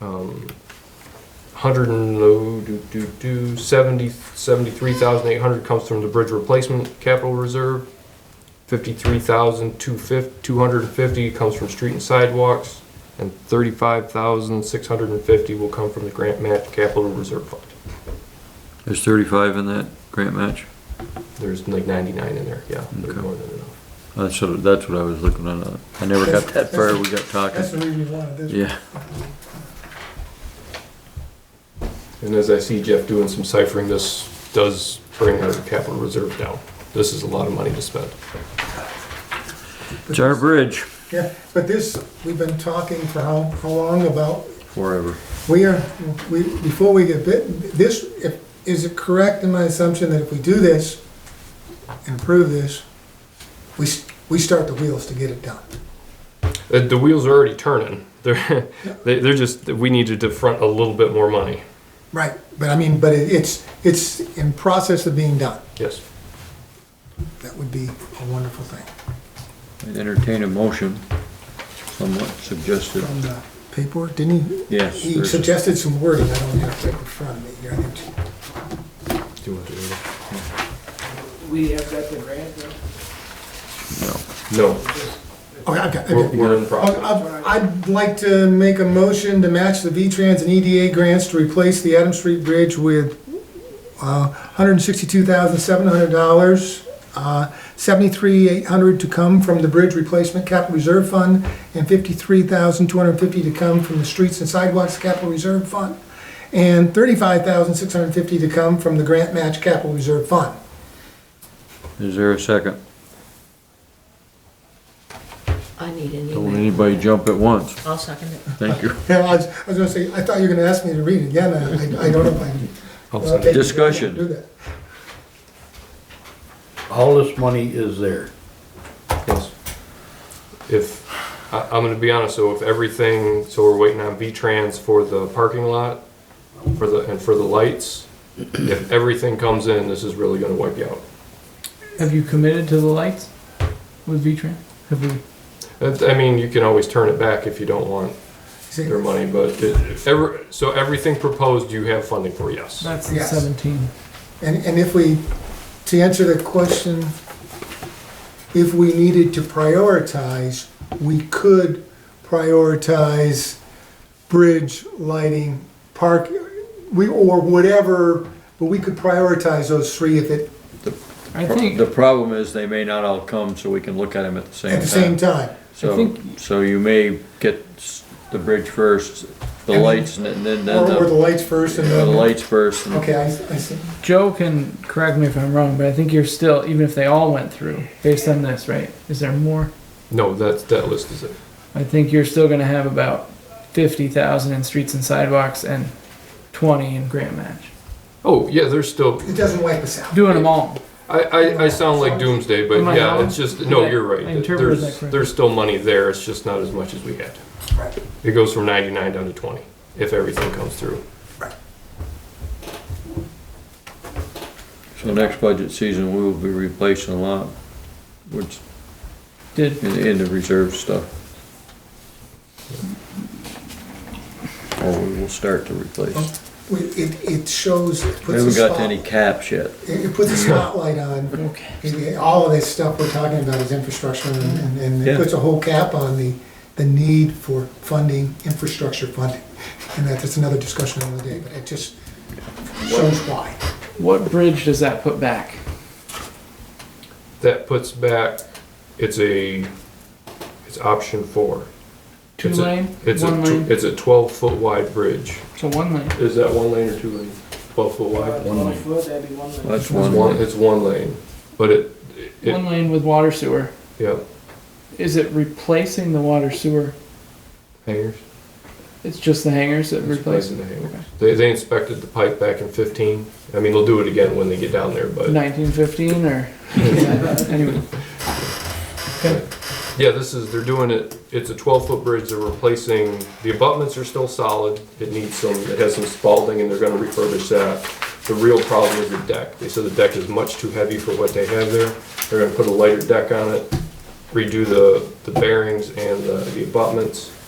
um, hundred and, oh, do, do, do, seventy, seventy-three thousand eight hundred comes from the bridge replacement capital reserve. Fifty-three thousand two fif, two hundred and fifty comes from street and sidewalks, and thirty-five thousand six hundred and fifty will come from the grant match capital reserve fund. There's thirty-five in that grant match? There's like ninety-nine in there, yeah, there's Okay. more than enough. That's what, that's what I was looking at. I never got that far, we got That's the talking. reason we wanted this. Yeah, And as I see Jeff doing some ciphering, this does bring our capital reserve down. This is a lot of money to spend. it's our bridge. Yeah, but this, we've been talking for how, how long about, Forever. we are, we, before we get bit, this, if- is it correct in my assumption that if we do this, and approve this, we, s- we start the wheels to get it done? Uh, The, the wheels are already turning. They're, they- they're just, we need to defront a little bit more money. Right, but I mean, but it- it's, it's in process of being done. Yes. That would be a wonderful thing. I'd Entertain a motion, somewhat suggested. From the paperwork, didn't he? Yes. He there's- suggested some wording, I don't have it right in front of me here. I think. Do you want to do that? We have got the grant, though. no. No, Okay, I've got, I've we're, got. we're in process. I'd I'd like to make a motion to match the V-Trans and EDA grants to replace the Adam Street Bridge with uh, $162,700, uh, $73,800 to come from the Bridge Replacement Capital Reserve Fund, and $53,250 to come from the Streets and Sidewalks Capital Reserve Fund, and $35,650 to come from the Grant Match Capital Reserve Fund. Is there a second? I need an Don't let email. anybody jump at once. I'll second it. Thank you. Yeah, I was I was gonna say, I thought you were gonna ask me to read it again, I I- I don't know if I I'll send it. Discussion. Do that. All this money is there. Yes. If, I, I'm gonna be honest, so if everything, so we're waiting on V-Trans for the parking lot, for the, and for the lights. If everything comes in, this is really gonna wipe you out. Have you committed to the lights with V-Tran? Have we? That's- Uh, I mean, you can always turn it back if you don't want See, their money, but it, ever, so everything proposed, you have funding for, yes. That's the Yes. seventeen. And, and if we, to answer the question, if we needed to prioritize, we could prioritize bridge, lighting, park, we, or whatever, but we could prioritize those three if it, I think, The problem is they may not all come, so we can look at them at the same time. at the same time. So, think- so you may get s- the bridge first, the And- lights, and then, then Or, or the the, lights first and the then. lights first. and- Okay, I, I see. Joe can correct me if I'm wrong, but I think you're still, even if they all went through, based on this, right? Is there more? No, that's, that list is it. I think you're still gonna have about fifty thousand in streets and sidewalks and twenty in grant match. Oh, yeah, there's still, It doesn't wipe us out. Doing them all. I, I, I sound like doomsday, but Am I yeah, wrong? it's just, no, Did I- you're I right. interpreted that There's, correctly. there's still money there, it's just not as much as we had. Right. It goes from ninety-nine down to twenty, if everything comes through. So next budget season, we will be replacing a lot, which, Did, in, in the reserve stuff. Or we will start to replace. We, it, it shows, it We puts a haven't got to spot, any it, caps yet. it puts a spotlight on It- it- All of this stuff we're talking about is infrastructure, and- and and it Yeah. puts a whole cap on the, the need for funding, infrastructure funding. And that- that's another discussion another day, but it just shows why. what bridge does that put back? That puts back, it's a, it's option four. Two It's a- lane, It's a, one tw- lane, it's a twelve-foot wide bridge. so one lane. Is that one lane or two lane? Twelve-foot wide? One lane. foot, that'd be one lane. That's It's one. one, way. it's one lane, but it, it, One lane with water sewer. yeah, Is it replacing the water sewer? hangers. It's just the hangers that It's replace replacing it? the hangers. They, they inspected the pipe back in fifteen. I mean, they'll do it again when they get down there, but Nineteen fifteen or, anyway, yeah, this is, they're doing it, it's a twelve foot bridge, they're replacing, the abutments are still solid. It needs some, it has some spalding and they're gonna refurbish that. The real problem is the deck. They said the deck is much too heavy for what they have there. They're gonna put a lighter deck on it, redo the, the bearings and the the abutments.